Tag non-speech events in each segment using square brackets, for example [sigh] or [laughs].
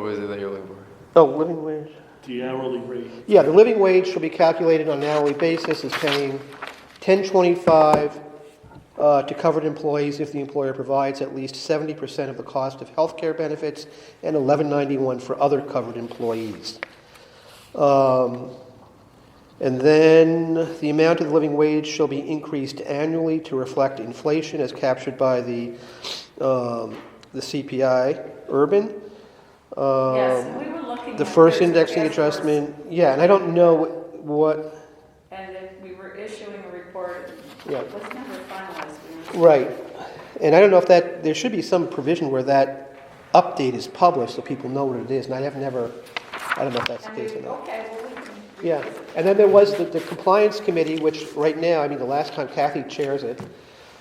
What was it that you're looking for? Oh, living wage. The hourly rate, Yeah, the living wage shall be calculated on an hourly basis as paying ten twenty-five uh, to covered employees if the employer provides at least seventy percent of the cost of healthcare benefits and eleven ninety-one for other covered employees. Um, and then the amount of the living wage shall be increased annually to reflect inflation as captured by the, um, the CPI urban. Yes, Um, and we were looking. The at first those indexing reports, adjustment, yeah, and I don't know what- what, And if we were issuing a report, Yeah. it was never finalized. we were- right. And I don't know if that, there should be some provision where that update is published so people know what it is, and I have never, I don't know if that's the And case or we, not. okay, well, we can. Yeah, and then there was the, the compliance committee, which right now, I mean, the last time Kathy chairs it,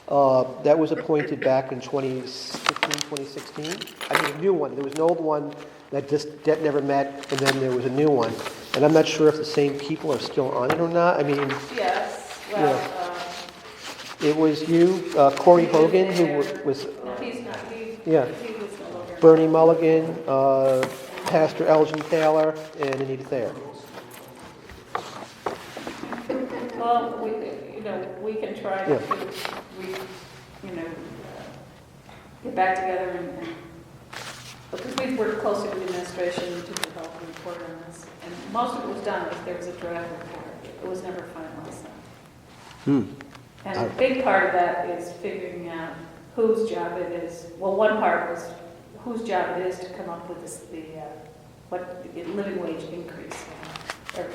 uh, that was appointed back in 2015, 2016. I mean, a new one, there was an old one that just, that never met, and then there was a new one. And I'm not sure if the same people are still on it or not, I mean, Yes, Yeah. well, It was you, uh, Corey Hogan, who wa- was um, no, he's not, he, he Yeah. was no longer. Bernie Mulligan, uh, Pastor Elgin Taylor, and Anita Thayer. Well, we, you know, we can try Yeah. to, we, you know, uh, get back together and, and- because we've worked closely with the administration to develop a report on this. And most of it was done, but there was a draft report. It was never finalized. Hmm. And a big part of that is figuring out whose job it is. Well, one part was whose job it is to come up with this, the, uh, what, the living wage increase. uh, or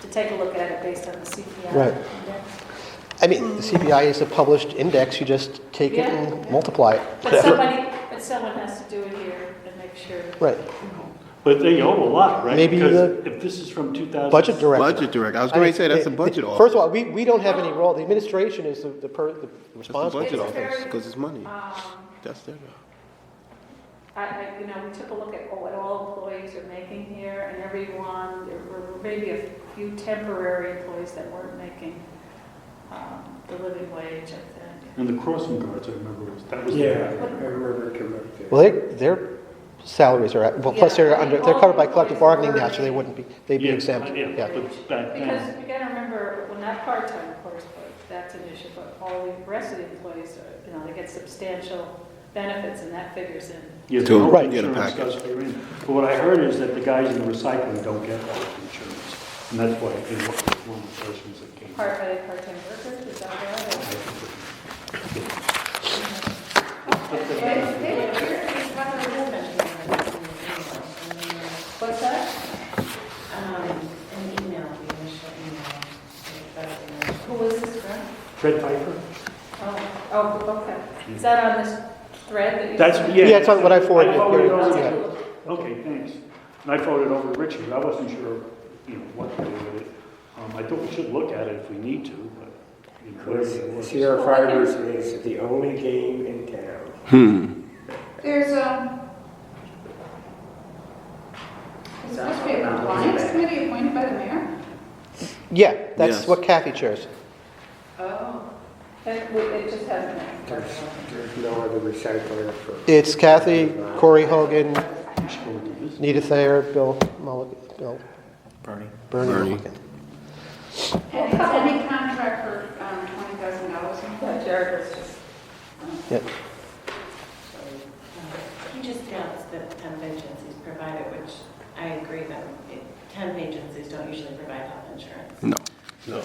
To take a look at it based on the CPI. Right. index. I mean, the CPI is a published index, you just take it and multiply it. But somebody, but someone has to do it here and make sure. [laughs] Right, but they owe a lot, right? Maybe Because if this is from 2000. budget director. Budget director, I was gonna say, that's the I- budget First office, of all, we, we don't have any role, the administration is the, the per, the that's the responsible. budget It's office, very- because it's money, Um, that's their, I, I, you know, we took a look at what all employees are making here and everyone, there were maybe a few temporary employees that weren't making um, the living wage, I think. And the crossing guards, I remember, was- that was. Yeah, I remember correctly. Well, they, their salaries are, at- well, plus Yeah, they're I mean, under, they're covered by collective all the bargaining now, employees so they were- wouldn't be, they'd be Yeah, exempt, yeah. yeah. But um, back Because then, you gotta remember, well, not part-time, of course, but that's an issue, but all the rest of the employees are, you know, they get substantial benefits and that figures in. you To know, Right. get a insurance package. does figure in. But what I heard is that the guys in the recycling don't get that insurance, and that's why they were one of the questions that came. up. Part by part-time workers, is that right? What's that? Who was this from? Fred Piper? Oh, oh, okay. Is that on this thread that you? That's, yeah. Yeah, it's on what I forwarded. I forwarded over Yeah. to you. Okay, thanks. And I forwarded over to Richard, I wasn't sure, you know, what to do with it. Um, I think we should look at it if we need to, but, you know, whatever it was. Sierra Fibers is the only game in town. There's, um, it's supposed to be a compliance committee appointed by the mayor? Yeah, that's Yes. what Kathy chairs. Oh, that, we- it just hasn't. been There's, confirmed. there's no other recycler for. It's Kathy, Corey Hogan, We should go do this. Nita Thayer, Bill Mulligan, Bill. Bernie. Bernie Bernie. Mulligan. And it's any contract for, um, twenty thousand dollars. Yeah, Jared was just, Yep. He just announced that temp agencies provide it, which I agree that it- temp agencies don't usually provide health insurance. no.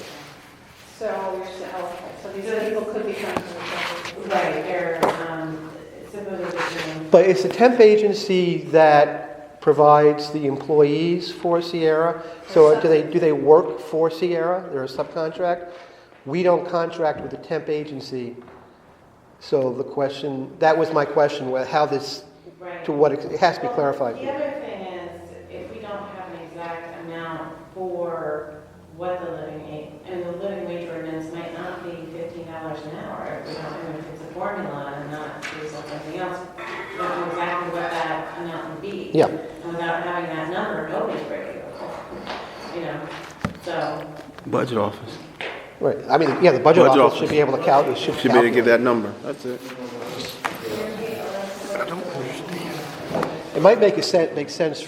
so you're saying, oh, okay, so these people could be coming to the. Right, they're um, supposedly doing, But it's a temp agency that provides the employees for Sierra. So uh, do they, do they work for Sierra? They're a subcontract? We don't contract with a temp agency. So the question, that was my question, wh- how this, right. to what, ex- it has to be clarified. The other thing is, if we don't have an exact amount for what the living wage, and the living wage ordinance might not be fifteen dollars an hour, if we don't know if it's a formula and not do something else, we don't know exactly what that amount would be. Yeah. And without having that number, nobody's ready, you know, so. Budget office. Right, I mean, yeah, the budget Budget office should office. be able to calculate, should Should be able to calculate. give that number, that's it. It might make a sen, make sense